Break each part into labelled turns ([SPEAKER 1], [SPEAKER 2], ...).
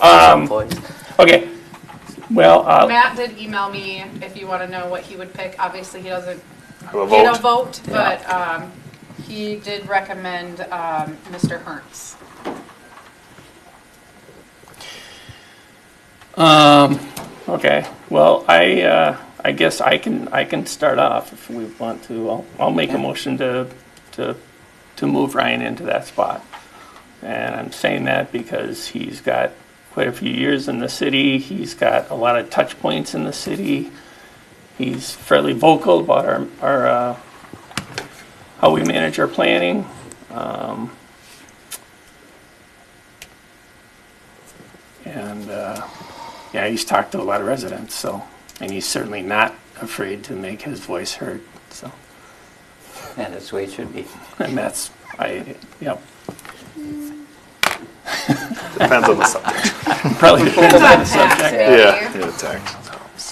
[SPEAKER 1] Um,
[SPEAKER 2] Employees.
[SPEAKER 1] Okay, well, uh,
[SPEAKER 3] Matt did email me if you want to know what he would pick. Obviously, he doesn't
[SPEAKER 4] Have a
[SPEAKER 3] get a
[SPEAKER 4] vote.
[SPEAKER 3] vote, but um, he did recommend um, Mr. Hertz.
[SPEAKER 1] Um, okay, well, I, uh, I guess I can, I can start off if we want to. I'll, I'll make a motion to, to, to move Ryan into that spot. And I'm saying that because he's got quite a few years in the city, he's got a lot of touch points in the city. He's fairly vocal about our, our, uh, how we manage our planning. Um, And, uh, yeah, he's talked to a lot of residents, so, and he's certainly not afraid to make his voice heard, so,
[SPEAKER 2] And that's the way it should be.
[SPEAKER 1] and that's, I, yep,
[SPEAKER 4] Depends on the subject.
[SPEAKER 1] probably depends on the
[SPEAKER 3] It's on tax,
[SPEAKER 1] subject.
[SPEAKER 3] baby.
[SPEAKER 4] Yeah, yeah, tax.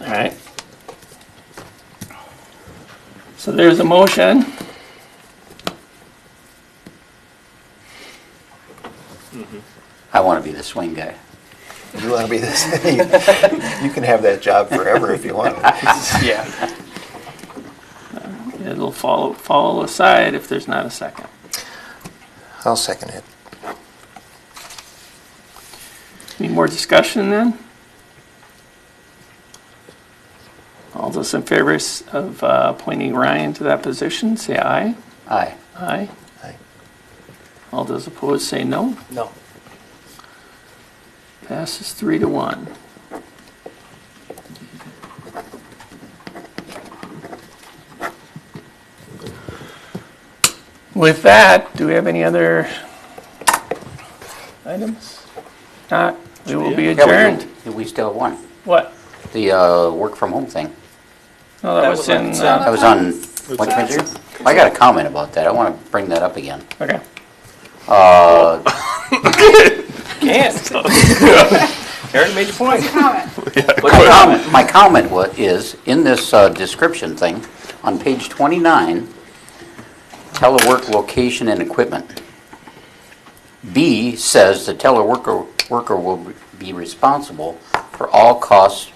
[SPEAKER 1] All right. So there's a motion.
[SPEAKER 2] I want to be the swing guy.
[SPEAKER 5] You want to be this? you can have that job forever if you want.
[SPEAKER 1] Yeah. It'll fall, fall aside if there's not a second.
[SPEAKER 5] I'll second it.
[SPEAKER 1] Any more discussion then? All those in favor s- of uh, appointing Ryan to that position, say aye.
[SPEAKER 2] Aye.
[SPEAKER 1] Aye.
[SPEAKER 5] Aye.
[SPEAKER 1] All those opposed, say no.
[SPEAKER 2] No.
[SPEAKER 1] Passes three to one. With that, do we have any other items? Not, we will be adjourned.
[SPEAKER 2] We still have one.
[SPEAKER 1] What?
[SPEAKER 2] The uh, work from home thing.
[SPEAKER 1] No, that was in, uh,
[SPEAKER 2] That was on, what, Commissioner? I got a comment about that. I want to bring that up again.
[SPEAKER 1] okay. uh,
[SPEAKER 6] Aaron made your point.
[SPEAKER 2] My comment, my comment wa- is, in this uh, description thing, on page 29, telework location and equipment. B says the teleworker worker will be responsible for all costs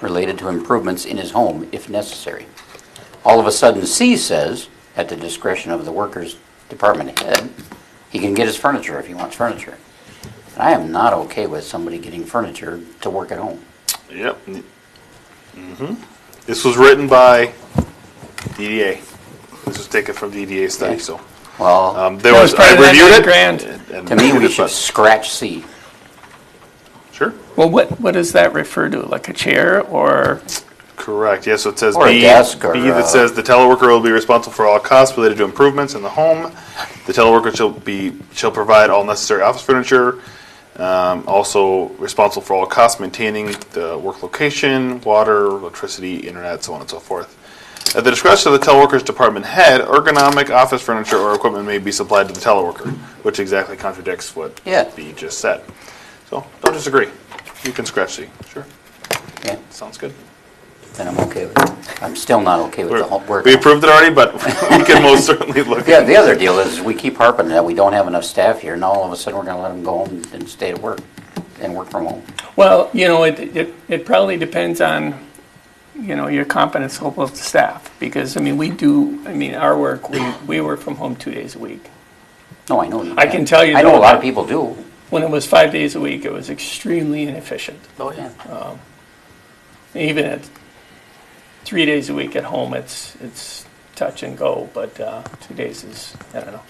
[SPEAKER 2] related to improvements in his home if necessary. All of a sudden, C says, at the discretion of the worker's department head, he can get his furniture if he wants furniture. And I am not okay with somebody getting furniture to work at home.
[SPEAKER 4] Yep. hmm This was written by DDA. This was taken from DDA study, so.
[SPEAKER 2] Well,
[SPEAKER 4] Um, there
[SPEAKER 1] That
[SPEAKER 4] was,
[SPEAKER 1] was part
[SPEAKER 4] I
[SPEAKER 1] of that
[SPEAKER 4] reviewed
[SPEAKER 1] nine
[SPEAKER 4] it.
[SPEAKER 1] grand.
[SPEAKER 4] and- and
[SPEAKER 2] to me,
[SPEAKER 4] reviewed
[SPEAKER 2] we
[SPEAKER 4] it,
[SPEAKER 2] should
[SPEAKER 4] but-
[SPEAKER 2] scratch C.
[SPEAKER 4] Sure,
[SPEAKER 1] Well, what, what does that refer to? Like a chair or,
[SPEAKER 4] correct, yeah, so it says B.
[SPEAKER 2] Or a desk or,
[SPEAKER 4] B
[SPEAKER 2] uh,
[SPEAKER 4] that says the teleworker will be responsible for all costs related to improvements in the home. The teleworker shall be, shall provide all necessary office furniture. Um, also responsible for all costs maintaining the work location, water, electricity, internet, so on and so forth. At the discretion of the teleworker's department head, ergonomic office furniture or equipment may be supplied to the teleworker, which exactly contradicts what
[SPEAKER 2] Yeah.
[SPEAKER 4] B just said. So, don't disagree. You can scratch C, sure.
[SPEAKER 2] Yeah,
[SPEAKER 4] Sounds good.
[SPEAKER 2] then I'm okay with it. I'm still not okay with the whole
[SPEAKER 4] We're-
[SPEAKER 2] work.
[SPEAKER 4] We approved it already, but we can most certainly look.
[SPEAKER 2] Yeah, the other deal is, we keep harping that we don't have enough staff here, and all of a sudden, we're gonna let them go home and stay at work, and work from home.
[SPEAKER 1] well, you know, it, it, it probably depends on, you know, your competence level of the staff. Because, I mean, we do, I mean, our work, we, we work from home two days a week.
[SPEAKER 2] No, I know.
[SPEAKER 1] I can tell you
[SPEAKER 2] I know
[SPEAKER 1] though
[SPEAKER 2] a lot of
[SPEAKER 1] that-
[SPEAKER 2] people do.
[SPEAKER 1] When it was five days a week, it was extremely inefficient.
[SPEAKER 2] Oh, yeah.
[SPEAKER 1] Even at three days a week at home, it's, it's touch and go, but uh, two days is, I don't know.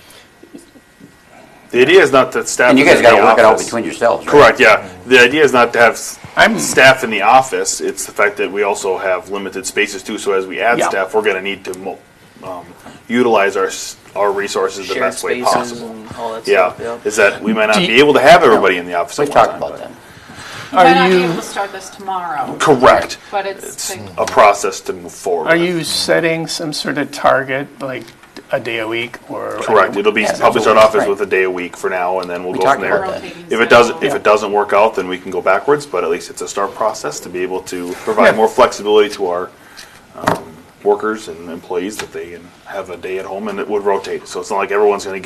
[SPEAKER 4] The idea is not that staff.
[SPEAKER 2] And you
[SPEAKER 4] is
[SPEAKER 2] guys
[SPEAKER 4] in the
[SPEAKER 2] gotta work it out
[SPEAKER 4] office.
[SPEAKER 2] between yourselves, right?
[SPEAKER 4] Correct, yeah. The idea is not to have s-
[SPEAKER 1] I'm-
[SPEAKER 4] staff in the office, it's the fact that we also have limited spaces too, so as we add
[SPEAKER 1] Yeah.
[SPEAKER 4] staff, we're gonna need to mo- um, utilize our, s- our resources the
[SPEAKER 6] Shared
[SPEAKER 4] best way
[SPEAKER 6] spaces
[SPEAKER 4] possible.
[SPEAKER 6] and all that stuff.
[SPEAKER 4] Yeah,
[SPEAKER 6] yep.
[SPEAKER 4] is that we might not
[SPEAKER 1] Do you-
[SPEAKER 4] be able to have everybody in the office at
[SPEAKER 2] We've
[SPEAKER 4] one
[SPEAKER 2] talked
[SPEAKER 4] time.
[SPEAKER 2] about
[SPEAKER 4] but-
[SPEAKER 2] that.
[SPEAKER 3] Might not be
[SPEAKER 1] you-
[SPEAKER 3] able to start this tomorrow,
[SPEAKER 4] Correct.
[SPEAKER 3] but it's,
[SPEAKER 4] It's
[SPEAKER 3] the-
[SPEAKER 4] a process to move forward.
[SPEAKER 1] Mm-hmm. Are
[SPEAKER 4] with.
[SPEAKER 1] you setting some sort of target, like a day a week or?
[SPEAKER 4] Correct, it'll be,
[SPEAKER 2] Yeah,
[SPEAKER 4] probably start
[SPEAKER 2] that's
[SPEAKER 4] off as
[SPEAKER 2] right.
[SPEAKER 4] with a day a week for now, and then we'll
[SPEAKER 2] We
[SPEAKER 4] go from
[SPEAKER 2] talked about
[SPEAKER 4] there.
[SPEAKER 2] that.
[SPEAKER 3] rotating
[SPEAKER 4] If it doesn't,
[SPEAKER 3] schedule.
[SPEAKER 4] if it doesn't work out, then we can go backwards, but at least it's a start process to be able to provide
[SPEAKER 1] Yeah.
[SPEAKER 4] more flexibility to our um, workers and employees that they can have a day at home and it would rotate. So it's not like everyone's gonna